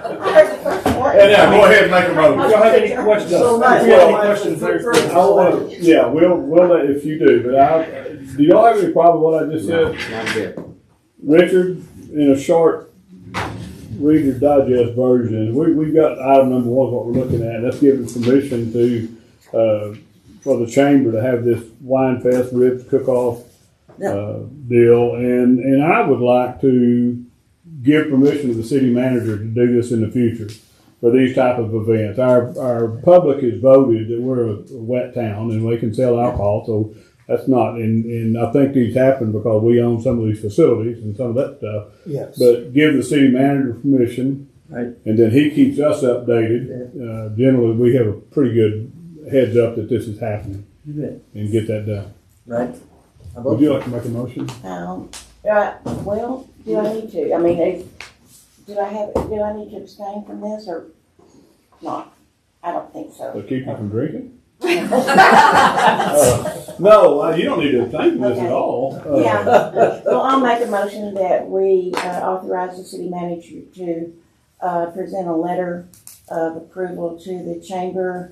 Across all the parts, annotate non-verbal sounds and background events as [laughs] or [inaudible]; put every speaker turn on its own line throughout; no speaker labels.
Yeah, yeah, go ahead and make a
Y'all
motion.
have any questions? If y'all have any questions, there's.
I'll, uh, yeah, we'll, we'll, let- if you do, but I, do y'all have any problem with what I just said? Richard, in a short Reader's Digest version, we, we've got item number one, what we're looking at, that's giving permission to, uh, for the chamber to have this wine fest, ribs, cook-off, uh, deal, and, and I would like to give permission to the city manager to do this in the future for these type of events. Our, our public has voted that we're a wet town and we can sell alcohol, so that's not, and, and I think these happen because we own some of these facilities and some of that stuff.
Yes.
But give the city manager permission,
Right.
and then he keeps us updated. Uh, generally, we have a pretty good heads up that this is happening
You bet.
and get that done.
Right. I
Would
vote
you like to make a motion?
Um, uh, well, do I need to, I mean, if, do I have, do I need to abstain from this or not? I don't think so.
[laughs] To keep you from drinking?
Yeah,
Uh, No, uh, you don't need to abstain from this at all. Uh,
well, I'll make a motion that we uh, authorize the city manager to, uh, present a letter of approval to the Chamber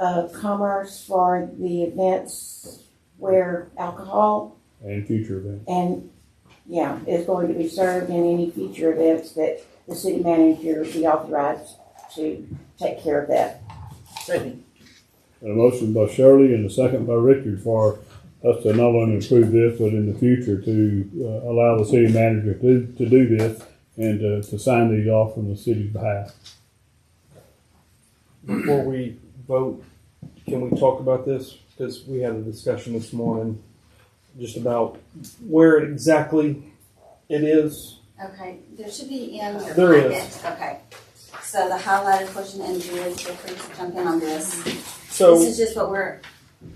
of Commerce for the events where alcohol
And future events.
And, yeah, it's going to be served in any future events that the city manager be authorized to take care of that.
second.
A motion by Shirley and a second by Richard for us to not only approve this, but in the future to uh, allow the city manager to, to do this and to, to sign these off on the city's behalf.
Before we vote, can we talk about this? Because we had a discussion this morning just about where exactly it is.
Okay, there should be in your.
There is.
packet. Okay. So the highlighted portion, and Julie, feel free to jump in on this. This
So
is just what we're,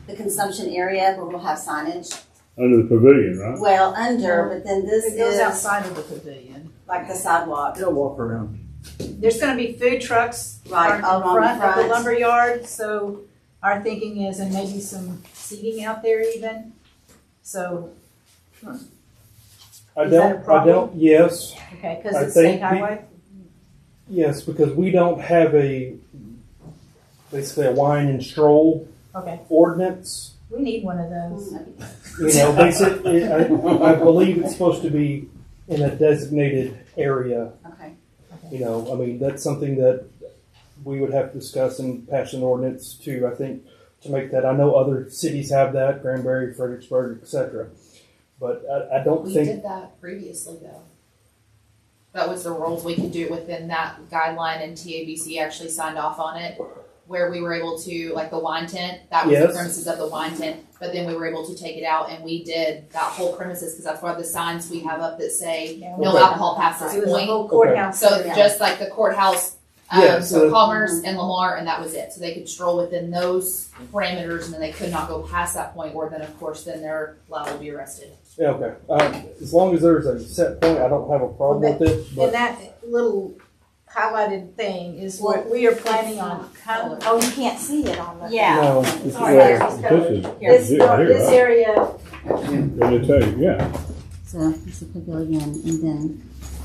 the consumption area where we'll have signage.
Under the pavilion, right?
Well, under, but then this
It goes
is
outside of the pavilion.
like the sidewalk,
They'll walk around.
There's gonna be food trucks
right,
in
all along
front
the
of the
front.
lumberyard, so our thinking is, and maybe some seating out there even. So,
I
Is that a
don't, I
problem?
don't, yes,
okay, cause
I
it's state
think the-
highway,
yes, because we don't have a, basically a wine and stroll
okay,
ordinance.
we need one of
Mm,
those.
You know, basically, I, I believe it's supposed to be in a designated area.
Okay,
You know, I mean, that's something that we would have to discuss and pass an ordinance to, I think, to make that. I know other cities have that, Granbury, Fredericksburg, et cetera. But I, I don't
We
think,
did that previously though. That was the rules, we could do it within that guideline and TABC actually signed off on it. Where we were able to, like the wine tent, that was the
Yes.
premises of the wine tent, but then we were able to take it out and we did that whole premises, cause that's why the signs we have up that say,
Yeah,
Mm-hmm.
no
Okay.
alcohol past
So
this
there's a
point.
whole courthouse.
So
Yeah.
just like the courthouse,
Yeah,
um,
so-
so Commerce and Lamar, and that was it, so they could stroll within those parameters and then they could not go past that point, or then of course, then they're liable to be arrested.
yeah, okay. Um, as long as there's a set point, I don't have a problem with it,
And
but
that little highlighted thing is what we are planning on, how,
Oh, you can't see it on the.
yeah.
no.
This is, uh,
All right.
well, this is
Here.
legit here,
this
right?
area,
Let me tell you, yeah.
So it's a pavilion, and then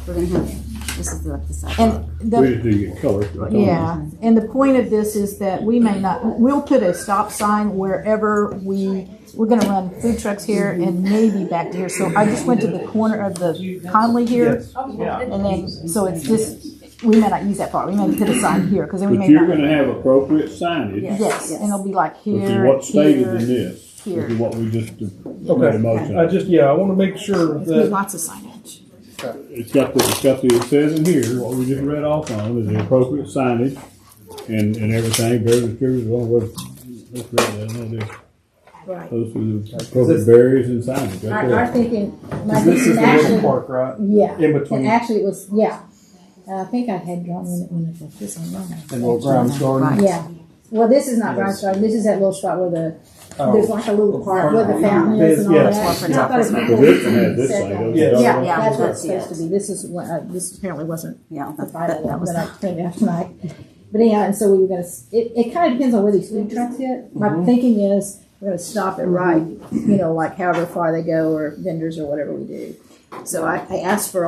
we're gonna have, this is like the sidewalk.
and
We
the,
just didn't get color. uh, that's all.
yeah, and the point of this is that we may not, we'll put a stop sign wherever we, we're gonna run food trucks here and maybe back to here, so I just went to the corner of the Conley here,
Yes.
and then, so it's just, we may not use that part, we may put a sign here, because then we
But
may
you're
not.
gonna have appropriate signage,
Yes, and it'll be like
which is
here,
what's stated
here,
in this, which is
here.
what we just made
Okay.
a motion.
I just, yeah, I want to make sure
There's
that,
lots of signage.
It's got the, it's got the, it says in here, what we just read off on, is the appropriate signage and, and everything, various distributors, well, what, let's read that, no, this.
Right.
Those are the appropriate barriers and signage, right
Our, our
there.
thinking, my
'cause this is
thinking
the little
actually,
park, right?
yeah,
In
and
between.
actually it was, yeah. And I think I had drawn one, one of the- this one, yeah.
And little Grimes Garden.
Yeah, well, this is not Brown Star, this is that little spot where the,
Oh.
there's like a little park where the fountain is and all that.
Yes,
I
yeah.
thought it was
The victim had this
said
thing,
that.
those
Yeah.
are-
Yeah,
Yeah,
that's what
that's
it's supposed to be, this is what, uh, this apparently wasn't
Yeah.
the final
that
one
was
that I cleaned out tonight. But anyhow, and so we were gonna, s- it, it kinda depends on where these food trucks hit. My thinking is, we're gonna stop it right, you know, like however far they go, or vendors or whatever we do. So I, I asked for